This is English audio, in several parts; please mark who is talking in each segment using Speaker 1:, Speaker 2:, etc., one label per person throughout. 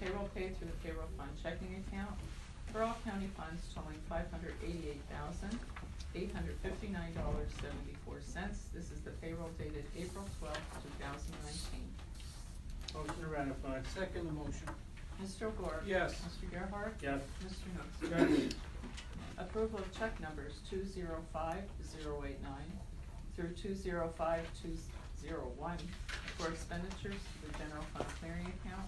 Speaker 1: payroll paid through the payroll fund checking account for all county funds totaling five hundred eighty-eight thousand, eight hundred fifty-nine dollars, seventy-four cents. This is the payroll dated April twelfth, two thousand nineteen.
Speaker 2: Motion to ratify.
Speaker 3: Second the motion.
Speaker 1: Mr. O'Gore?
Speaker 2: Yes.
Speaker 1: Mr. Gerhart?
Speaker 2: Yes.
Speaker 1: Mr. Knutson?
Speaker 2: Yes.
Speaker 1: Approval of check numbers two zero five zero eight nine through two zero five two zero one for expenditures to the general fund clearing account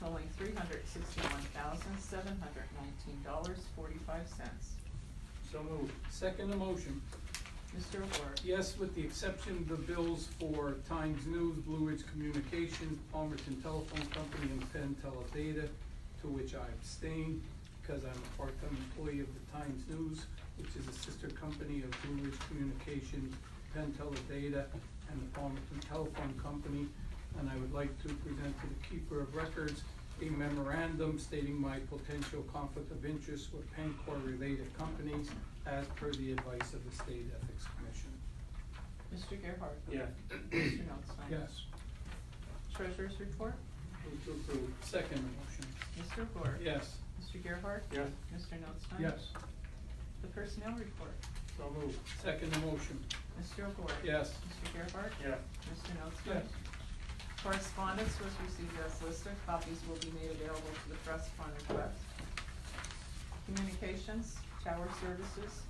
Speaker 1: totaling three hundred sixty-one thousand, seven hundred nineteen dollars, forty-five cents.
Speaker 2: So moved.
Speaker 3: Second the motion.
Speaker 1: Mr. O'Gore?
Speaker 3: Yes, with the exception of the bills for Times News, Blue Ridge Communications, Palmerton Telephone Company, and Penn Teledata, to which I abstain because I'm a part-time employee of the Times News, which is a sister company of Blue Ridge Communications, Penn Teledata, and the Palmerton Telephone Company. And I would like to present to the Keeper of Records a memorandum stating my potential conflict of interest with Pencor-related companies as per the advice of the State Ethics Commission.
Speaker 1: Mr. Gerhart?
Speaker 2: Yes.
Speaker 1: Mr. Knutson?
Speaker 3: Yes.
Speaker 1: Treasurer's report?
Speaker 3: Move to approve. Second motion.
Speaker 1: Mr. O'Gore?
Speaker 3: Yes.
Speaker 1: Mr. Gerhart?
Speaker 2: Yes.
Speaker 1: Mr. Knutson?
Speaker 3: Yes.
Speaker 1: The personnel report?
Speaker 2: So moved.
Speaker 3: Second motion.
Speaker 1: Mr. O'Gore?
Speaker 3: Yes.
Speaker 1: Mr. Gerhart?
Speaker 2: Yes.
Speaker 1: Mr. Knutson?
Speaker 3: Yes.
Speaker 1: Correspondence was received as listed, copies will be made available to the press upon request. Communications, Tower Services,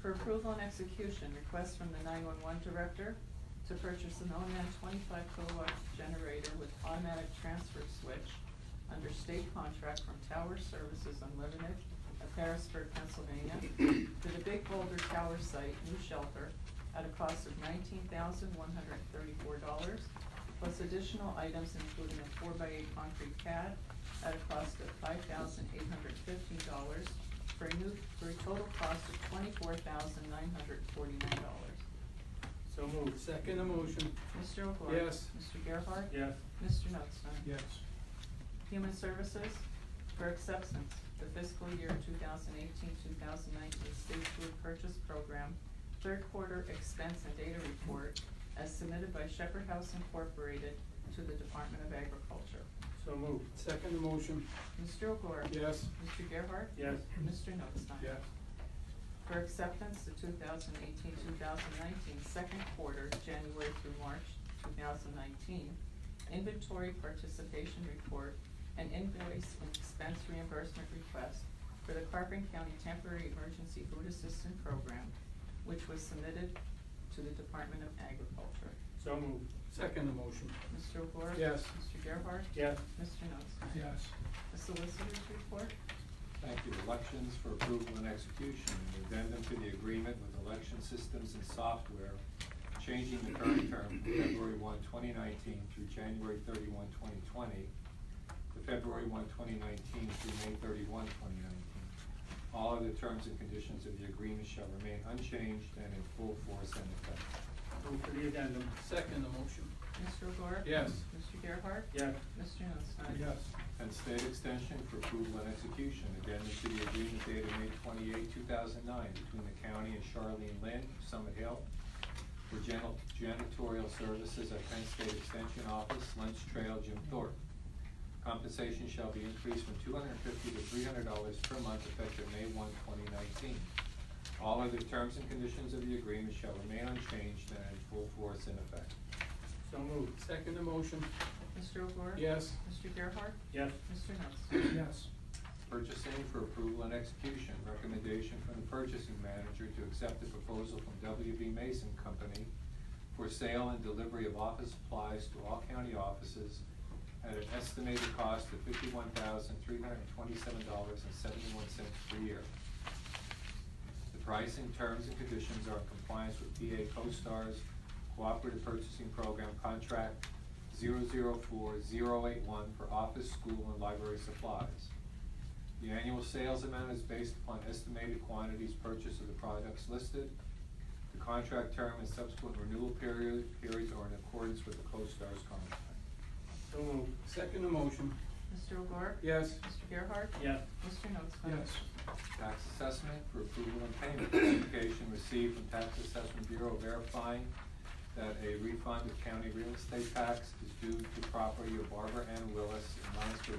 Speaker 1: for approval and execution, request from the nine-one-one director to purchase an OMAN twenty-five kilowatt generator with automatic transfer switch under state contract from Tower Services Unlimited of Harrisburg, Pennsylvania, to the Big Boulder Tower Site new shelter at a cost of nineteen thousand one hundred thirty-four dollars, plus additional items including a four-by-eight concrete pad at a cost of five thousand eight hundred fifteen dollars for a new, for a total cost of twenty-four thousand nine hundred forty-nine dollars.
Speaker 2: So moved.
Speaker 3: Second motion.
Speaker 1: Mr. O'Gore?
Speaker 3: Yes.
Speaker 1: Mr. Gerhart?
Speaker 2: Yes.
Speaker 1: Mr. Knutson?
Speaker 3: Yes.
Speaker 1: Human Services for acceptance, the fiscal year 2018-2019 state food purchase program, third quarter expense and data report as submitted by Shepherd House Incorporated to the Department of Agriculture.
Speaker 2: So moved.
Speaker 3: Second motion.
Speaker 1: Mr. O'Gore?
Speaker 3: Yes.
Speaker 1: Mr. Gerhart?
Speaker 2: Yes.
Speaker 1: Mr. Notstein?
Speaker 2: Yes.
Speaker 1: for acceptance the 2018-2019 second quarter, January through March two thousand nineteen, inventory participation report and invoice and expense reimbursement request for the Carpenter County Temporary Emergency Food Assistance Program, which was submitted to the Department of Agriculture.
Speaker 2: So moved.
Speaker 3: Second motion.
Speaker 1: Mr. O'Gore?
Speaker 3: Yes.
Speaker 1: Mr. Gerhart?
Speaker 2: Yes.
Speaker 1: Mr. Nostine?
Speaker 3: Yes.
Speaker 1: The solicitor's report?
Speaker 4: Thank you. Elections for approval and execution, An addendum to the agreement with election systems and software, changing the current term from February 1, 2019 through January 31, 2020, to February 1, 2019 through May 31, 2019. All other terms and conditions of the agreement shall remain unchanged and in full force and effect.
Speaker 2: Move for the addendum.
Speaker 3: Second motion.
Speaker 1: Mr. O'Gore?
Speaker 3: Yes.
Speaker 1: Mr. Gerhart?
Speaker 2: Yes.
Speaker 1: Mr. Nostine?
Speaker 4: And state extension for approval and execution, addendum to the agreement dated May 28, thousand nine, between the county and Charlene Lynn, Summit Hill, for janitor- janitorial services at Penn State Extension Office, Lynch Trail, Jim Thorpe. Compensation shall be increased from two hundred and fifty to three hundred dollars per month effective May 1, 2019. All other terms and conditions of the agreement shall remain unchanged and in full force and effect.
Speaker 2: So moved.
Speaker 3: Second motion.
Speaker 1: Mr. O'Gore?
Speaker 3: Yes.
Speaker 1: Mr. Gerhart?
Speaker 2: Yes.
Speaker 1: Mr. Knutson?
Speaker 3: Yes.
Speaker 4: Purchasing for approval and execution, recommendation from the purchasing manager to accept the proposal from WB Mason Company for sale and delivery of office supplies to all county offices at an estimated cost of fifty-one thousand, three hundred and twenty-seven dollars and seventy-one cents per year. The pricing, terms, and conditions are in compliance with PA CoStar's Cooperative Purchasing Program Contract 004081 for office, school, and library supplies. The annual sales amount is based upon estimated quantities purchased of the products listed. The contract term and subsequent renewal period, periods are in accordance with the CoStar's contract.
Speaker 2: So moved.
Speaker 3: Second motion.
Speaker 1: Mr. O'Gore?
Speaker 3: Yes.
Speaker 1: Mr. Gerhart?
Speaker 2: Yes.
Speaker 1: Mr. Notstein?
Speaker 3: Yes.
Speaker 4: Tax assessment for approval and payment. Notification received from Tax Assessment Bureau verifying that a refund of county real estate tax is due to property of Barbara Ann Willis in Munster